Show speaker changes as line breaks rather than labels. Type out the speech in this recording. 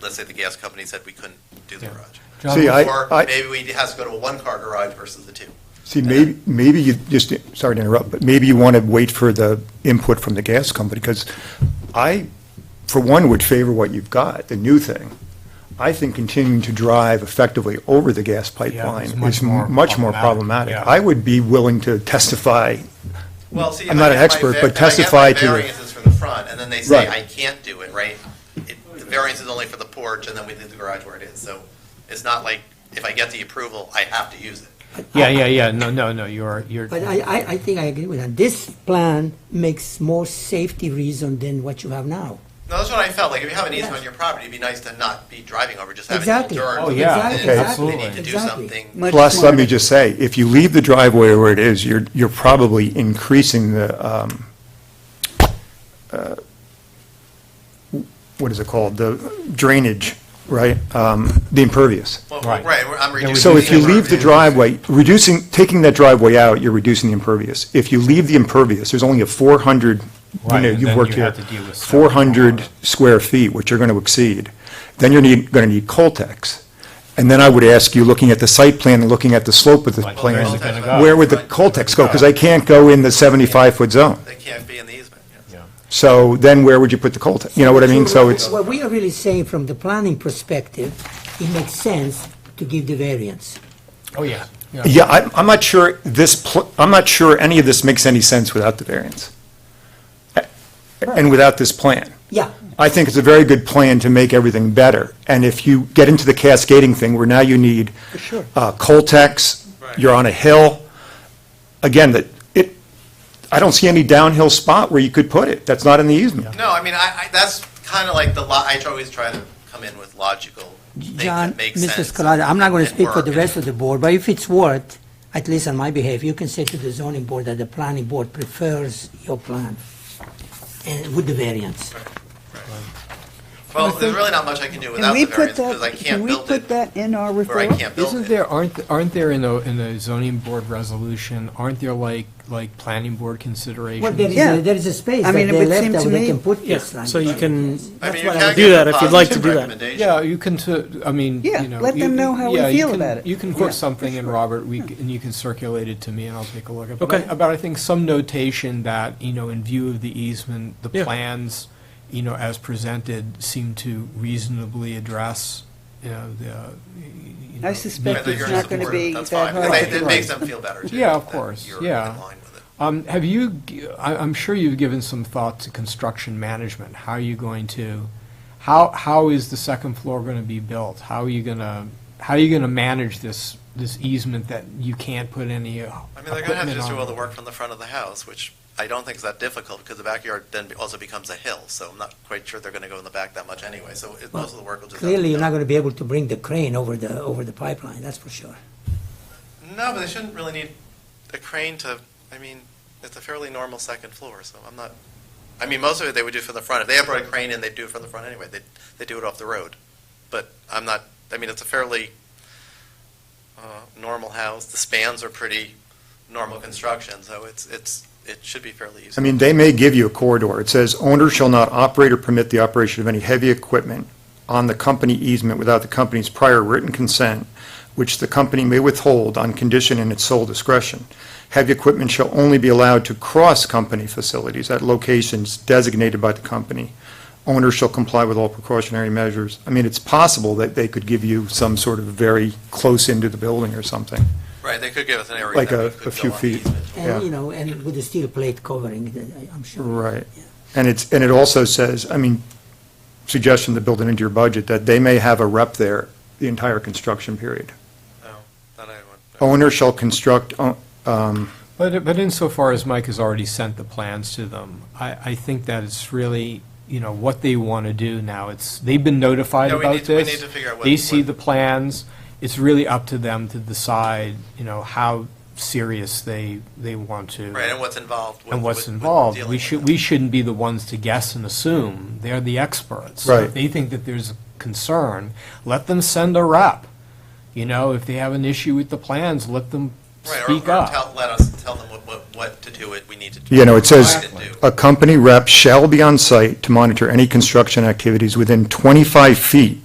let's say the gas company said we couldn't do the
Yeah.
garage.
John,
See, I-
Or maybe we has to go to a one-car garage versus the two.
See, maybe, maybe you, just, sorry to interrupt, but maybe you want to wait for the input from the gas company, because I, for one, would favor what you've got, the new thing. I think continuing to drive effectively over the gas
it's
pipeline
much
is
more
much more
problematic,
problematic.
yeah.
I would be willing to testify,
Well, see, if
I'm
I
not an
get my
expert,
va- if
but
I get my
testify to-
Variances from the front, and then they say,
Right.
I can't do it, right? It- The variance is only for the porch, and then we leave the garage where it is, so it's not like, if I get the approval, I have to use it.
Yeah, yeah, yeah, no, no, no, you're, you're,
But I, I, I think I agree with that. This plan makes more safety reason than what you have now.
No, that's what I felt, like, if you have an easement
Yes.
on your property, it'd be nice to not be driving over, just have it
Exactly.
turned.
Oh,
yeah.
and
Exactly,
if
absolutely.
They need to do
Exactly.
something.
Much
plus, let
more-
me just say, if you leave the driveway where it is, you're, you're probably increasing the, um, uh, what is it called, the drainage, right? Um, The impervious.
Well,
Right.
Right, we're- I'm reducing.
So if you leave the
impervious.
driveway, reducing, taking that driveway out, you're reducing the impervious. If you leave the impervious, there's only a 400, you
Right,
know,
and
you've
then
worked
you
here,
have to deal with stuff.
400 square feet, which you're going to exceed. Then you're going to need Coltex. And then I would ask you, looking at the site plan and looking at the slope of the
Right,
plan,
where's it gonna go?
where would the Coltex go? Because I can't go in the 75-foot zone.
They can't be in the easement, yes.
So then where would you put the Coltex? You know what I mean? So it's,
What we are really saying from the planning perspective, it makes sense to give the variance.
oh, yeah.
yeah, I'm, I'm not sure this, pl- I'm not sure any of this makes any sense without the variance. A- And without this plan.
Yeah,
I think it's a very good plan to make everything better. And if you get into the cascading thing where now you need
Sure.
uh, Coltex, you're on a hill, again, that, it, I don't see any downhill spot where you could put it. That's not in the easement.
No, I mean, I, I, that's kind of like the, lo- I try- always try to come in with logical things
John,
that make sense.
Mr. Scalata, I'm not going to
and
speak for the
work.
rest of the board, but if it's worth, at least on my behalf, you can say to the zoning board that the planning board prefers your plan and with the variance.
Well, there's really not much I can do
Can
without
we
the variance,
put
because I
that, can
can't
we
build
put
it
that in our
where I
referral?
can't build
Isn't
it.
there, aren't, aren't there in the, in the zoning board resolution, aren't there like, like planning board considerations?
Well, there is,
Yeah.
a- there is a space
I
that
mean, it
they
would
left
seem
that
to
they
me-
can put
Yeah,
this language.
so you can,
I mean,
That's
you
what I
can
was-
do
give
that
a
if you'd like to
positive
do that.
recommendation.
Yeah, you can, t- I mean,
Yeah,
you know.
let
you-
them know how we
yeah, you
feel
can-
about it.
You can
Yeah,
quote
for
something and
sure.
Robert, we, c- and you can circulate it to me and I'll take a look at it. But
Okay.
I- About, I think, some notation that, you know, in view of the easement, the
Yeah.
plans, you know, as presented, seem to reasonably address, you know, the. uh, you know,
I suspect
I think you're
It's
in
not gonna
support,
be
that's
that
fine. And
hard
they-
to
It makes them feel better, too.
Yeah, of
that
course,
you're
yeah.
in line with it.
Um, have you, g- I, am sure you've given some thought to construction management. How are you going to, how, how is the second floor gonna be built? How are you gonna, how are you gonna manage this, this easement that you can't put any uh,
I mean, they're gonna have to
equipment
just do all the
on?
work from the front of the house, which I don't think is that difficult, because the backyard then be- also becomes a hill, so I'm not quite sure they're gonna go in the back that much anyway, so it- most of the work will just. have to be
Clearly, you're
done.
not going to be able to bring the crane over the, over the pipeline, that's for sure.
No, but they shouldn't really need a crane to, I mean, it's a fairly normal second floor, so I'm not, I mean, most of it they would do from the front. If they had brought a crane in, they'd do it from the front anyway. They, they do it off the road. But I'm not, I mean, it's a fairly, uh, normal house. The spans are pretty normal construction, so it's, it's, it should be fairly easy.
I mean, they may give you a corridor. It says, owner shall not operate or permit the operation of any heavy equipment on the company easement without the company's prior written consent, which the company may withhold on condition in its sole discretion. Heavy equipment shall only be allowed to cross company facilities at locations designated by the company. Owner shall comply with all precautionary measures. I mean, it's possible that they could give you some sort of very close into the building or something.
Right, they could give us an area.
Like
that
a-
we could
a few
go on
feet.
easement.
Yeah.
And, you know, and with the steel plate covering, uh, I'm sure.
Right. And it's, and it also says, I mean, suggestion to build it into your budget, that they may have a rep there the entire construction period.
No, that I would-
Owner shall construct, o- um,
But, but insofar as Mike has already sent the plans to them, I, I think that it's really, you know, what they want to do now. It's, they've been notified
Yeah, we
about
need
this.
to- we need to figure out what-
They see
what-
the plans. It's really up to them to decide, you know, how serious they, they want to.
Right, and what's involved. with-
and what's
with- with
involved.
dealing
We
with
should,
it.
we shouldn't be the ones to guess and assume. They're the experts.
Right.
If they think that there's a concern, let them send a rep. You know, if they have an issue with the plans, let them
Right, or-
speak
or
up.
tell- Let us, tell them what, what, what to do, what we need to do.
you know, it says,
what we need to do.
a company rep shall be on site to monitor any construction activities within 25 feet